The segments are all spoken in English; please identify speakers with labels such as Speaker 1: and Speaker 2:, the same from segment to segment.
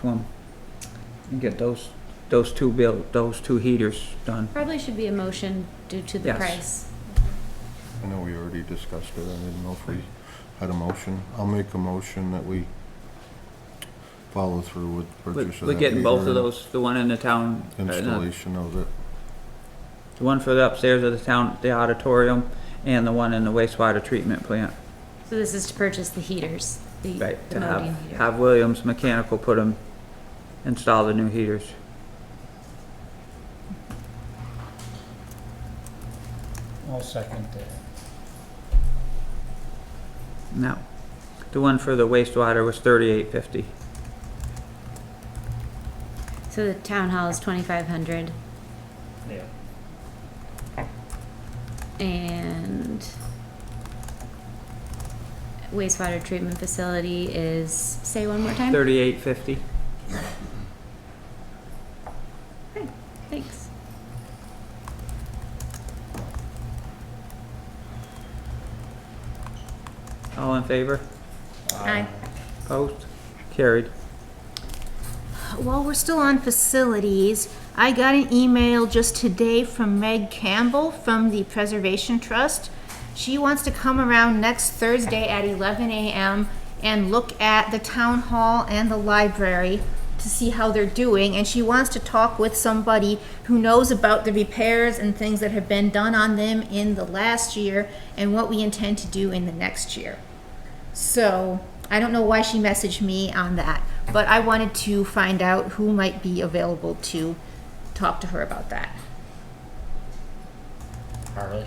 Speaker 1: Plum. And get those, those two bill, those two heaters done.
Speaker 2: Probably should be a motion due to the
Speaker 1: Yes.
Speaker 2: price.
Speaker 3: I know we already discussed it, I didn't know if we had a motion. I'll make a motion that we follow through with
Speaker 1: We-
Speaker 3: purchase of that
Speaker 1: We're getting both of
Speaker 3: heater
Speaker 1: those, the one in the town, uh,
Speaker 3: and
Speaker 1: no,
Speaker 3: Installation of it.
Speaker 1: the one for the upstairs of the town, the auditorium, and the one in the wastewater treatment plant.
Speaker 2: So this is to purchase the heaters, the
Speaker 1: Right,
Speaker 2: the
Speaker 1: to
Speaker 2: Modine
Speaker 1: have,
Speaker 2: heater.
Speaker 1: have Williams Mechanical put them, install the new heaters.
Speaker 4: I'll second that.
Speaker 1: No. The one for the wastewater was thirty-eight fifty.
Speaker 2: So the town hall is twenty-five hundred
Speaker 4: Yeah.
Speaker 2: and wastewater treatment facility is, say one more time?
Speaker 1: Thirty-eight fifty.
Speaker 2: Thanks.
Speaker 1: All in favor?
Speaker 2: Aye.
Speaker 1: Opposed? Carried.
Speaker 5: While we're still on facilities, I got an email just today from Meg Campbell from the Preservation Trust. She wants to come around next Thursday at eleven AM and look at the town hall and the library to see how they're doing, and she wants to talk with somebody who knows about the repairs and things that have been done on them in the last year and what we intend to do in the next year. So I don't know why she messaged me on that, but I wanted to find out who might be available to talk to her about that.
Speaker 4: Harley?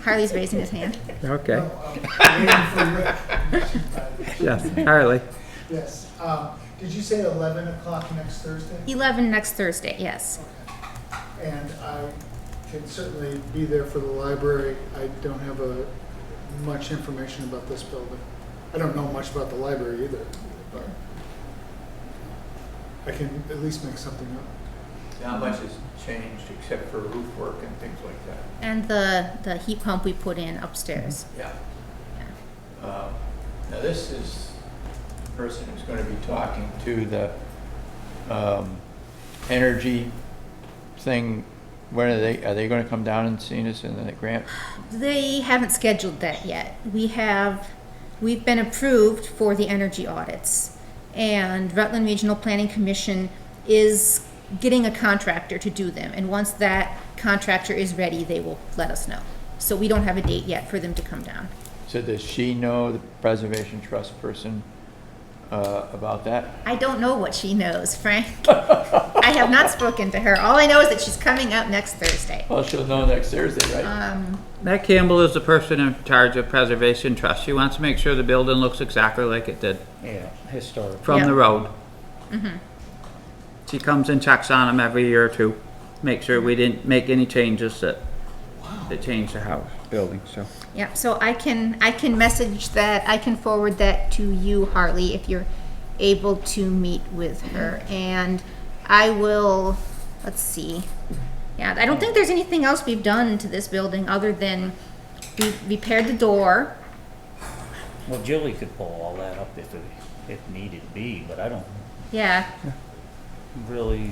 Speaker 5: Harley's raising his hand.
Speaker 1: Okay, yes,
Speaker 6: Yes.
Speaker 1: Harley.
Speaker 6: Yes. Um, Did you say 11 o'clock next Thursday?
Speaker 5: Eleven next Thursday, yes.
Speaker 6: And I can certainly be there for the library. I don't have a, much information about this building. I don't know much about the library either, but I can at least make something up.
Speaker 7: Not much has changed except for roof work and things like that,
Speaker 5: And the, the heat pump we put in upstairs.
Speaker 7: yeah. Uh, Now, this is the person who's gonna be talking to the, um, energy thing. When are they, are they gonna come down and see us in the grant?
Speaker 5: They haven't scheduled that yet. We have, we've been approved for the energy audits. And Rutland Regional Planning Commission is getting a contractor to do them. And once that contractor is ready, they will let us know. So we don't have a date yet for them to come down.
Speaker 7: So does she know the Preservation Trust person, uh, about that?
Speaker 5: I don't know what she knows, Frank. I have not spoken to her. All I know is that she's coming up next Thursday.
Speaker 7: Well, she'll know next Thursday, right?
Speaker 5: Um,
Speaker 1: Matt Campbell is the person in charge of Preservation Trust. She wants to make sure the building looks exactly like it did
Speaker 4: Yeah, historic.
Speaker 1: from
Speaker 5: Yeah.
Speaker 1: the road. She comes and checks on them every year or two, make sure we didn't make any changes that, that changed the house, building, so.
Speaker 5: yeah, so I can, I can message that, I can forward that to you, Harley, if you're able to meet with
Speaker 4: Mm-hmm.
Speaker 5: her. And I will, let's see. Yeah, I don't think there's anything else we've done to this building other than we repaired the door.
Speaker 4: Well, Julie could pull all that up if it, if needed be, but I don't
Speaker 5: Yeah,
Speaker 4: really,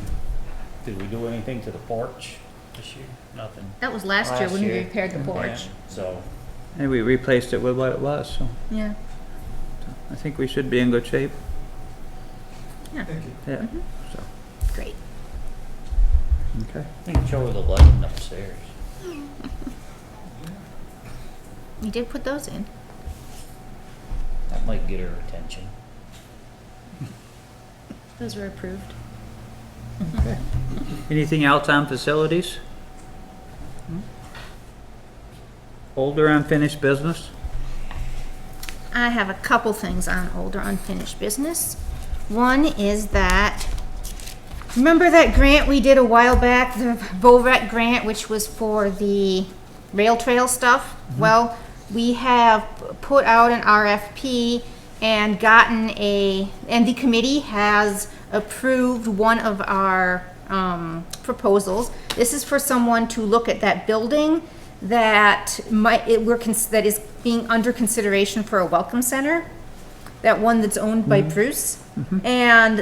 Speaker 4: did we do anything to the porch this year? Nothing.
Speaker 5: that was last year
Speaker 4: Last
Speaker 5: when we
Speaker 4: year. Mm-hmm.
Speaker 5: repaired the porch.
Speaker 4: Yeah, So,
Speaker 1: And we replaced it with what it was, so
Speaker 5: Yeah.
Speaker 1: I think we should be in good shape,
Speaker 6: Thank you.
Speaker 1: yeah,
Speaker 5: Great.
Speaker 1: okay.
Speaker 4: I think show her the lighting upstairs.
Speaker 5: We did put those in.
Speaker 4: That might get her attention.
Speaker 2: Those were approved.
Speaker 1: Anything else on facilities? Older unfinished business?
Speaker 5: I have a couple things on older unfinished business. One is that, remember that grant we did a while back, the Bovet grant, which was for the rail trail stuff? Well, we have put out an RFP and gotten a, and the committee has approved one of our um, proposals. This is for someone to look at that building that might, it, we're, cons- that is being under consideration for a welcome center. that one that's owned by Bruce. And